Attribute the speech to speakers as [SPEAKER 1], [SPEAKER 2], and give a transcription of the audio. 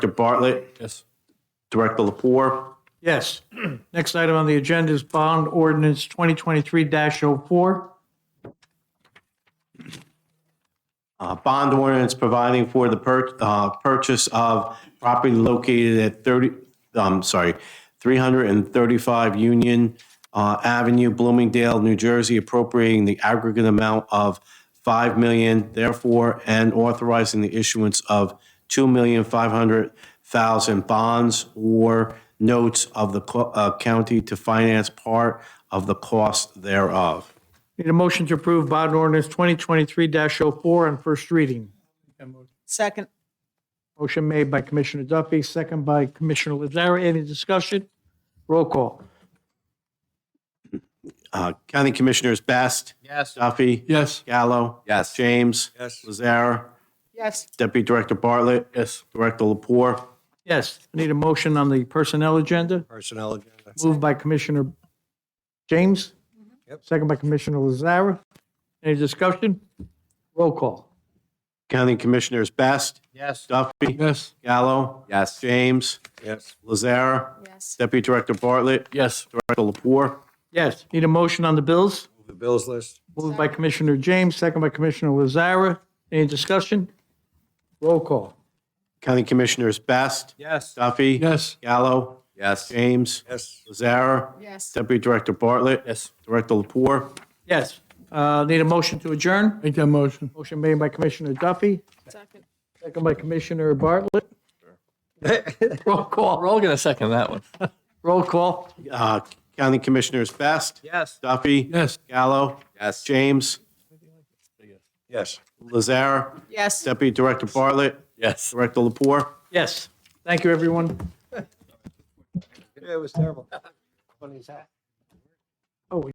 [SPEAKER 1] Director Bartlett,
[SPEAKER 2] Yes.
[SPEAKER 1] Director Lapore,
[SPEAKER 3] Yes. Next item on the agenda is bond ordinance 2023-04.
[SPEAKER 1] Uh, Bond ordinance providing for the pur- uh, purchase of property located at 30, I'm sorry, 335 Union uh, Avenue, Bloomingdale, New Jersey, appropriating the aggregate amount of 5 million, therefore, and authorizing the issuance of 2,500,000 bonds or notes of the co- uh, county to finance part of the cost thereof.
[SPEAKER 3] Need a motion to approve bond ordinance 2023-04 on first reading.
[SPEAKER 4] Second.
[SPEAKER 3] Motion made by Commissioner Duffy, second by Commissioner Lazara. Any discussion? Roll call.
[SPEAKER 1] Uh, County Commissioners Best.
[SPEAKER 5] Yes.
[SPEAKER 1] Duffy.
[SPEAKER 2] Yes.
[SPEAKER 1] Gallo.
[SPEAKER 5] Yes.
[SPEAKER 1] James.
[SPEAKER 5] Yes.
[SPEAKER 1] Lazara.
[SPEAKER 4] Yes.
[SPEAKER 1] Deputy Director Bartlett.
[SPEAKER 2] Yes.
[SPEAKER 1] Director Lapore.
[SPEAKER 3] Yes, I need a motion on the personnel agenda,
[SPEAKER 5] Personnel agenda.
[SPEAKER 3] moved by Commissioner James,
[SPEAKER 5] Yep.
[SPEAKER 3] second by Commissioner Lazara. Any discussion? Roll call.
[SPEAKER 1] County Commissioners Best.
[SPEAKER 5] Yes.
[SPEAKER 1] Duffy.
[SPEAKER 2] Yes.
[SPEAKER 1] Gallo.
[SPEAKER 5] Yes.
[SPEAKER 1] James.
[SPEAKER 5] Yes.
[SPEAKER 1] Lazara.
[SPEAKER 4] Yes.
[SPEAKER 1] Deputy Director Bartlett.
[SPEAKER 2] Yes.
[SPEAKER 1] Director Lapore.
[SPEAKER 3] Yes, need a motion on the bills,
[SPEAKER 5] Move The bills list.
[SPEAKER 3] moved by Commissioner James, second by Commissioner Lazara. Any discussion? Roll call.
[SPEAKER 1] County Commissioners Best.
[SPEAKER 5] Yes.
[SPEAKER 1] Duffy.
[SPEAKER 2] Yes.
[SPEAKER 1] Gallo.
[SPEAKER 5] Yes.
[SPEAKER 1] James.
[SPEAKER 5] Yes.
[SPEAKER 1] Lazara.
[SPEAKER 4] Yes.
[SPEAKER 1] Deputy Director Bartlett.
[SPEAKER 2] Yes.
[SPEAKER 1] Director Lapore.
[SPEAKER 3] Yes, uh, need a motion to adjourn,
[SPEAKER 2] Make that motion.
[SPEAKER 3] motion made by Commissioner Duffy,
[SPEAKER 4] Second.
[SPEAKER 3] second by Commissioner Bartlett. Roll
[SPEAKER 2] We're
[SPEAKER 3] call,
[SPEAKER 2] all gonna second that one.
[SPEAKER 3] roll call.
[SPEAKER 1] Uh, County Commissioners Best.
[SPEAKER 5] Yes.
[SPEAKER 1] Duffy.
[SPEAKER 2] Yes.
[SPEAKER 1] Gallo.
[SPEAKER 5] Yes.
[SPEAKER 1] James.
[SPEAKER 5] Yes.
[SPEAKER 1] Lazara.
[SPEAKER 4] Yes.
[SPEAKER 1] Deputy Director Bartlett.
[SPEAKER 2] Yes.
[SPEAKER 1] Director Lapore.
[SPEAKER 3] Yes, thank you, everyone.
[SPEAKER 5] It was terrible. Funny as that.